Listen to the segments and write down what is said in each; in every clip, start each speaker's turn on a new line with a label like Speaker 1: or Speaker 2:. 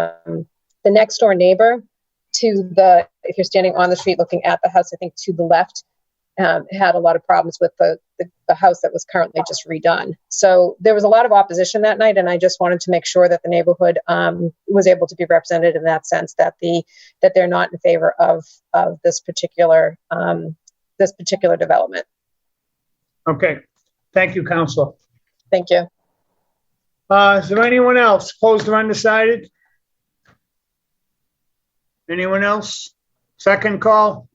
Speaker 1: um, the next door neighbor to the, if you're standing on the street looking at the house, I think to the left, um, had a lot of problems with the, the, the house that was currently just redone. So there was a lot of opposition that night, and I just wanted to make sure that the neighborhood um, was able to be represented in that sense that the that they're not in favor of of this particular um, this particular development.
Speaker 2: Okay, thank you, Counselor.
Speaker 1: Thank you.
Speaker 2: Uh, is there anyone else opposed or undecided? Anyone else? Second call?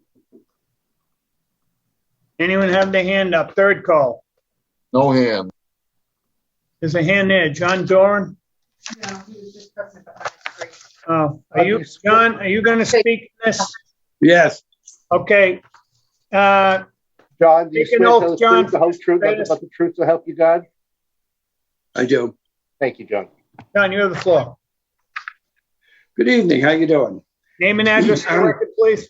Speaker 2: Anyone have their hand up? Third call?
Speaker 3: No hand.
Speaker 2: There's a hand there. John Doran?
Speaker 4: No, he was just pressing the button. Great.
Speaker 2: Oh, are you, John, are you going to speak in this?
Speaker 3: Yes.
Speaker 2: Okay. Uh,
Speaker 5: John, do you
Speaker 2: Take an
Speaker 5: swear to
Speaker 2: oath,
Speaker 5: tell the
Speaker 2: John.
Speaker 5: truth, the whole truth, nothing but the truth to help you God?
Speaker 6: I do.
Speaker 5: Thank you, John.
Speaker 2: John, you have the floor.
Speaker 6: Good evening, how you doing?
Speaker 2: Name and address for the record, please.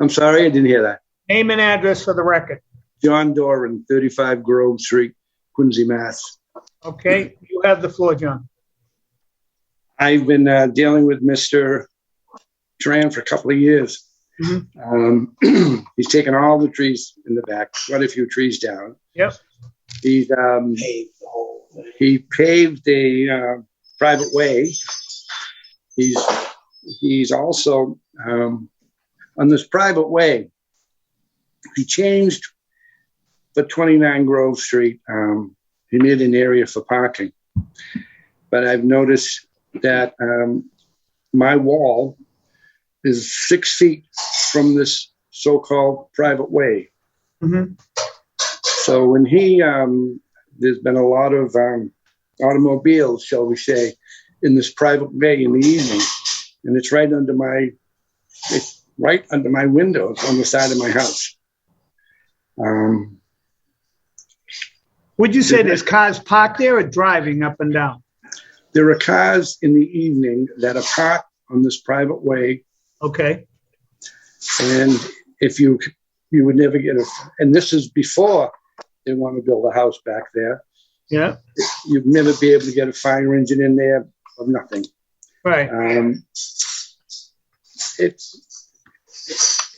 Speaker 6: I'm sorry, I didn't hear that.
Speaker 2: Name and address for the record.
Speaker 6: John Doran, 35 Grove Street, Quincy, Mass.
Speaker 2: Okay, you have the floor, John.
Speaker 6: I've been uh, dealing with Mr. Tran for a couple of years.
Speaker 2: Mhm.
Speaker 6: Um, He's taken all the trees in the back, quite a few trees down.
Speaker 2: Yep.
Speaker 6: He's, um, he paved a uh, private way. He's, he's also, um, on this private way, he changed for 29 Grove Street, um, he made an area for parking. But I've noticed that um, my wall is six feet from this so-called private way.
Speaker 2: Mhm.
Speaker 6: So when he, um, there's been a lot of um, automobiles, shall we say, in this private way in the evening, and it's right under my, it's right under my windows on the side of my house. Um,
Speaker 2: Would you say there's cars parked there or driving up and down?
Speaker 6: there are cars in the evening that are parked on this private way
Speaker 2: Okay,
Speaker 6: And if you, you would never get a, and this is before they want to build a house back there.
Speaker 2: yeah,
Speaker 6: You'd never be able to get a fire engine in there of nothing.
Speaker 2: right.
Speaker 6: Um, it's,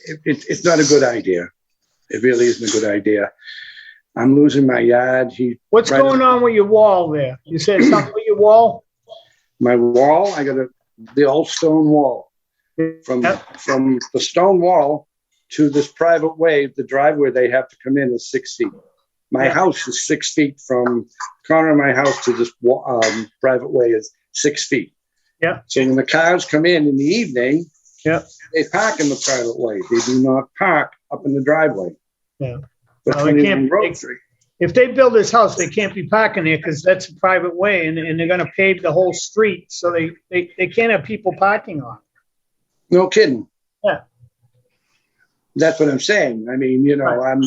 Speaker 6: it, it, it's not a good idea. It really isn't a good idea. I'm losing my yard. He,
Speaker 2: What's
Speaker 6: Right.
Speaker 2: going on with your wall there? You said something with your wall?
Speaker 6: my wall, I got a, the old stone wall. From,
Speaker 2: Yep.
Speaker 6: from the stone wall to this private way, the driveway they have to come in is six feet. My
Speaker 2: Yeah.
Speaker 6: house is six feet from corner of my house to this wa- um, private way is six feet.
Speaker 2: Yeah.
Speaker 6: So when the cars come in in the evening,
Speaker 2: Yeah.
Speaker 6: they park in the private way. They do not park up in the driveway.
Speaker 2: Yeah.
Speaker 6: But
Speaker 2: No, they can't-
Speaker 6: 21 Grove Street.
Speaker 2: If they build this house, they can't be parking there because that's a private way and, and they're gonna pave the whole street, so they, they, they can't have people parking on.
Speaker 6: No kidding.
Speaker 2: Yeah.
Speaker 6: That's what I'm saying. I mean, you know, I'm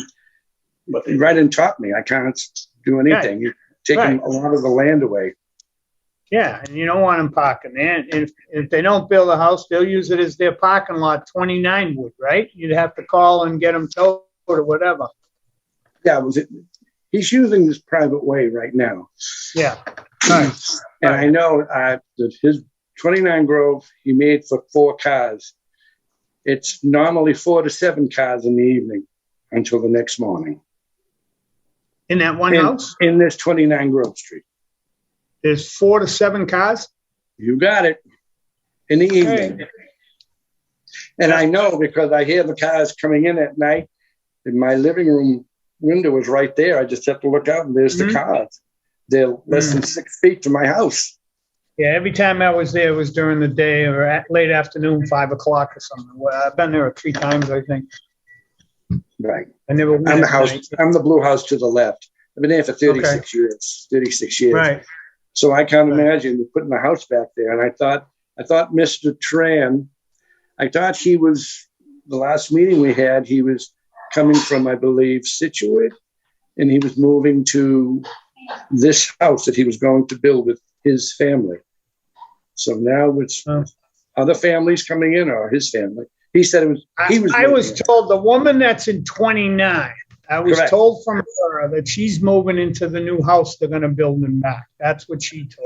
Speaker 6: right in top of me. I can't do anything. You're taking
Speaker 2: Right.
Speaker 6: a lot of the land away.
Speaker 2: Yeah, and you don't want them parking there. And if, if they don't build a house, they'll use it as their parking lot, twenty-nine would, right? You'd have to call and get them towed or whatever.
Speaker 6: Yeah, was it? He's using this private way right now,
Speaker 2: Yeah,
Speaker 6: and I know uh, that his 29 Grove he made for four cars. It's normally four to seven cars in the evening until the next morning
Speaker 2: in that one
Speaker 6: And-
Speaker 2: house,
Speaker 6: in this 29 Grove Street.
Speaker 2: there's four to seven cars.
Speaker 6: You got it. In the evening. And I know because I hear the cars coming in at night, and my living room window is right there. I just have to look out, and there's
Speaker 2: Mhm.
Speaker 6: the cars. They're less than six feet from my house.
Speaker 2: Yeah, every time I was there, it was during the day or at late afternoon, five o'clock or something. Well, I've been there three times, I think.
Speaker 6: Right.
Speaker 2: I never. went
Speaker 6: I'm the
Speaker 2: at
Speaker 6: house.
Speaker 2: night.
Speaker 6: I'm the blue house to the left. I've been there for 36 years. 36 years.
Speaker 2: Right,
Speaker 6: So I can't
Speaker 2: Right.
Speaker 6: imagine putting the house back there. And I thought, I thought Mr. Tran, I thought he was, the last meeting we had, he was coming from, I believe, Situate, and he was moving to this house that he was going to build with his family. So now it's
Speaker 2: Oh.
Speaker 6: other families coming in or his family. He said it was,
Speaker 2: I,
Speaker 6: he was.
Speaker 2: I was
Speaker 6: moving in.
Speaker 2: told the woman that's in twenty-nine, I was
Speaker 6: Correct.
Speaker 2: told from her that she's moving into the new house they're gonna build in back. That's what she told.